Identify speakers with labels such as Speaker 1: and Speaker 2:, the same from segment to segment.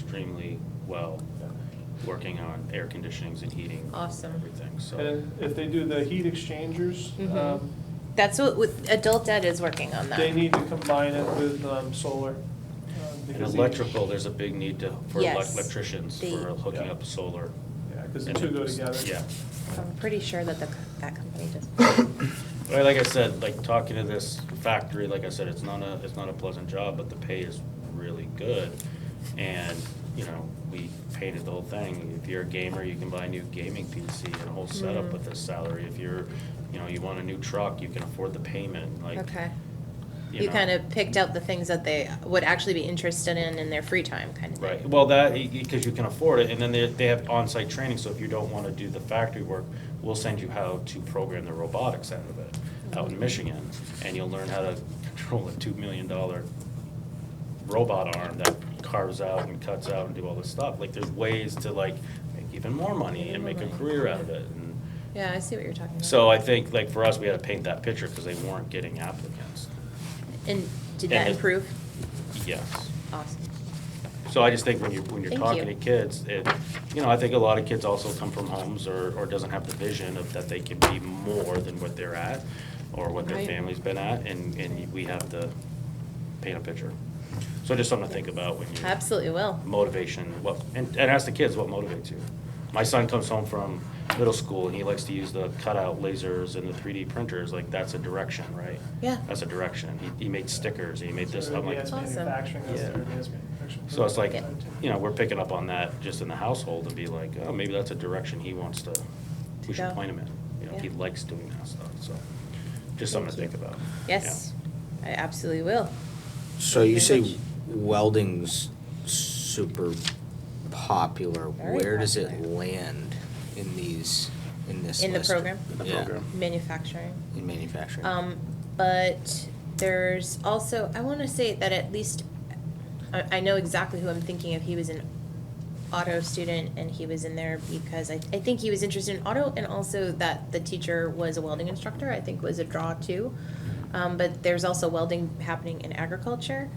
Speaker 1: extremely well, working on air conditionings and heating.
Speaker 2: Awesome.
Speaker 1: Everything, so.
Speaker 3: And uh, if they do the heat exchangers,
Speaker 2: Mhm.
Speaker 3: um,
Speaker 2: That's what, with- adult ed is working on that.
Speaker 3: they need to combine it with um, solar. um,
Speaker 1: And
Speaker 3: because each-
Speaker 1: electrical, there's a big need to, for elec-
Speaker 2: Yes.
Speaker 1: electricians
Speaker 2: They-
Speaker 1: for hooking
Speaker 3: Yeah.
Speaker 1: up solar.
Speaker 3: Yeah, because the
Speaker 1: And
Speaker 3: two go
Speaker 1: it's-
Speaker 3: together.
Speaker 1: Yeah.
Speaker 2: I'm pretty sure that the, co- that company does.
Speaker 1: Well, like I said, like talking to this factory, like I said, it's not a, it's not a pleasant job, but the pay is really good. And, you know, we painted the whole thing. If you're a gamer, you can buy a new gaming PC and a whole setup
Speaker 2: Mm.
Speaker 1: with this salary. If you're, you know, you want a new truck, you can afford the payment, like.
Speaker 2: Okay.
Speaker 1: you
Speaker 2: You
Speaker 1: know.
Speaker 2: kind of picked out the things that they would actually be interested in in their free time, kind of thing.
Speaker 1: Right, well, that, because you can afford it, and then they, they have on-site training, so if you don't wanna do the factory work, we'll send you how to program the robotics out of it, out in Michigan, and you'll learn how to control a two million dollar robot arm that carves out and cuts out and do all this stuff, like, there's ways to like make even more money and make a career out of it, and
Speaker 2: Yeah, I see what you're talking about.
Speaker 1: so I think, like, for us, we had to paint that picture, because they weren't getting applicants,
Speaker 2: And did
Speaker 1: And
Speaker 2: that
Speaker 1: it-
Speaker 2: improve?
Speaker 1: yes.
Speaker 2: Awesome.
Speaker 1: So I just think when you're, when you're
Speaker 2: Thank
Speaker 1: talking
Speaker 2: you.
Speaker 1: to kids, it, you know, I think a lot of kids also come from homes or, or doesn't have the vision of that they can be more than what they're at or what their
Speaker 2: Right.
Speaker 1: family's been at, and, and we have to paint a picture. So just something to think about when you.
Speaker 2: Absolutely Oh. will.
Speaker 1: Motivation, what, and, and ask the kids what motivates you. My son comes home from middle school and he likes to use the cutout lasers and the three D printers, like, that's a direction, right?
Speaker 2: Yeah.
Speaker 1: That's a direction. He, he made stickers, he made this,
Speaker 3: So
Speaker 1: I'm like,
Speaker 3: advanced
Speaker 2: Awesome.
Speaker 3: manufacturing, that's
Speaker 1: Yeah.
Speaker 3: their advanced manufacturing.
Speaker 1: so it's like,
Speaker 2: Yeah.
Speaker 1: you know, we're picking up on that just in the household and be like, oh, maybe that's a direction he wants to, we should
Speaker 2: go.
Speaker 1: point him in. You know, he
Speaker 2: Yeah.
Speaker 1: likes doing that stuff, so just something to think about.
Speaker 2: Yes, I absolutely will.
Speaker 4: So you
Speaker 2: Very
Speaker 4: say
Speaker 2: much.
Speaker 4: welding's super popular.
Speaker 2: Very
Speaker 4: Where does it
Speaker 2: popular.
Speaker 4: land in these, in this
Speaker 2: In the
Speaker 4: list?
Speaker 2: program?
Speaker 1: In the
Speaker 4: Yeah,
Speaker 1: program.
Speaker 2: Manufacturing.
Speaker 4: in manufacturing.
Speaker 2: Um, but there's also, I want to say that at least, I, I know exactly who I'm thinking of. He was an auto student and he was in there because I, I think he was interested in auto and also that the teacher was a welding instructor, I think was a draw too. Um, but there's also welding happening in agriculture,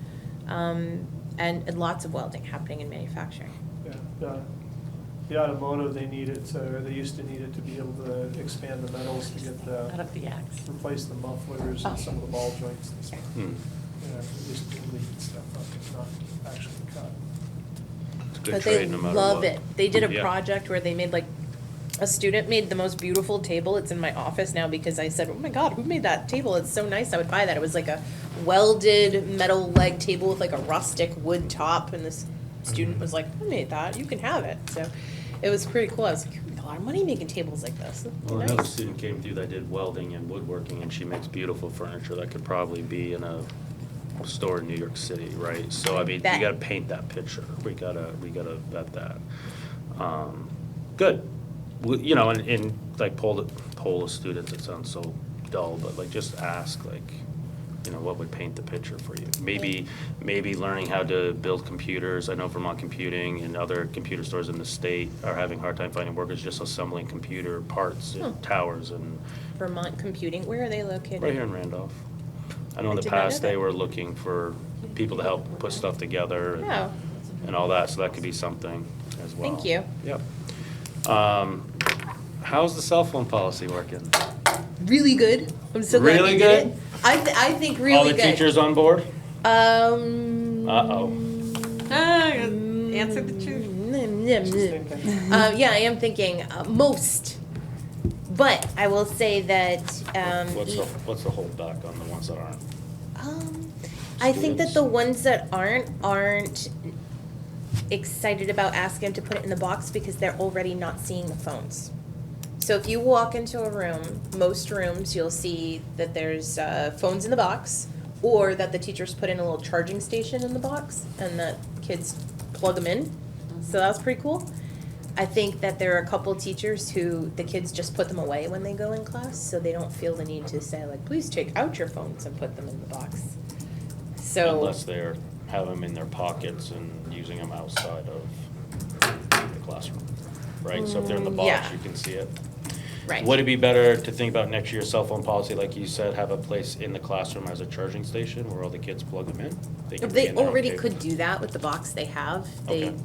Speaker 2: um, and, and lots of welding happening in manufacturing.
Speaker 3: Yeah, the- The automotive, they need it, to- or they used to need it to be able to expand the metals to get
Speaker 5: Out
Speaker 3: the,
Speaker 5: of the axe.
Speaker 3: replace the mufflers
Speaker 2: Oh.
Speaker 3: and some of the ball joints and stuff.
Speaker 1: Yeah. Hmm.
Speaker 3: You know, they just lead stuff up, it's not actually cut.
Speaker 1: It's a good
Speaker 2: But they
Speaker 1: trade no matter
Speaker 2: love
Speaker 1: what.
Speaker 2: it. They did a
Speaker 1: Yeah.
Speaker 2: project where they made like, a student made the most beautiful table. It's in my office now because I said, oh my God, who made that table? It's so nice. I would buy that. It was like a welded metal leg table with like a rustic wood top. And this
Speaker 1: Mm-hmm.
Speaker 2: student was like, I made that. You can have it. So it was pretty cool. I was like, you make a lot of money making tables like this. That'd be
Speaker 1: Well, another
Speaker 2: nice.
Speaker 1: student came through that did welding and woodworking, and she makes beautiful furniture that could probably be in a store in New York City, right? So, I mean, we
Speaker 2: Bet.
Speaker 1: gotta paint that picture, we gotta, we gotta vet that. Um, Good, We- you know, and, and like poll, the- poll the students, it sounds so dull, but like just ask, like, you know, what would paint the picture for you? Maybe, maybe learning how to build computers. I know Vermont Computing and other computer stores in the state are having a hard time finding workers just assembling computer parts
Speaker 2: Hmm.
Speaker 1: and towers and,
Speaker 2: Vermont Computing, where are they located?
Speaker 1: right here in Randolph. I know in the
Speaker 2: I did not know
Speaker 1: past, they
Speaker 2: that.
Speaker 1: were looking for people to help put stuff together and-
Speaker 2: Oh,
Speaker 1: and all that, so that could be something as well.
Speaker 2: thank you.
Speaker 1: Yep. Um, How's the cell phone policy working?
Speaker 2: Really good. I'm so glad
Speaker 1: Really
Speaker 2: you did
Speaker 1: good?
Speaker 2: it. I, th- I think really
Speaker 1: All the
Speaker 2: good.
Speaker 1: teachers on board?
Speaker 2: Um.
Speaker 1: Uh-oh.
Speaker 5: Ah, answer the truth.
Speaker 2: Mm, mm,
Speaker 3: She's
Speaker 2: mm.
Speaker 3: thinking.
Speaker 2: Uh, yeah, I am thinking uh, most, but I will say that um,
Speaker 1: What's the,
Speaker 2: e-
Speaker 1: what's the holdback on the ones that aren't?
Speaker 2: um, I think that the ones that aren't aren't excited about asking them to put it in the box because they're already not seeing the phones. So if you walk into a room, most rooms you'll see that there's uh, phones in the box, or that the teachers put in a little charging station in the box, and that kids plug them in.
Speaker 1: Mm-hmm.
Speaker 2: So that was pretty cool. I think that there are a couple teachers who the kids just put them away when they go in class, so they don't feel the need to say like, please take out your phones and put them in the box. So
Speaker 1: Unless they're, have them in their pockets and using them outside of the classroom, right? So if they're in the
Speaker 2: Mm,
Speaker 1: box,
Speaker 2: yeah.
Speaker 1: you can see it.
Speaker 2: right,
Speaker 1: Would it be better to think about next year's cell phone policy, like you said, have a place in the classroom as a charging station where all the kids plug them in? can
Speaker 2: If
Speaker 1: bring
Speaker 2: they
Speaker 1: in their own
Speaker 2: already
Speaker 1: cable.
Speaker 2: could do that with the box they have. They
Speaker 1: Okay.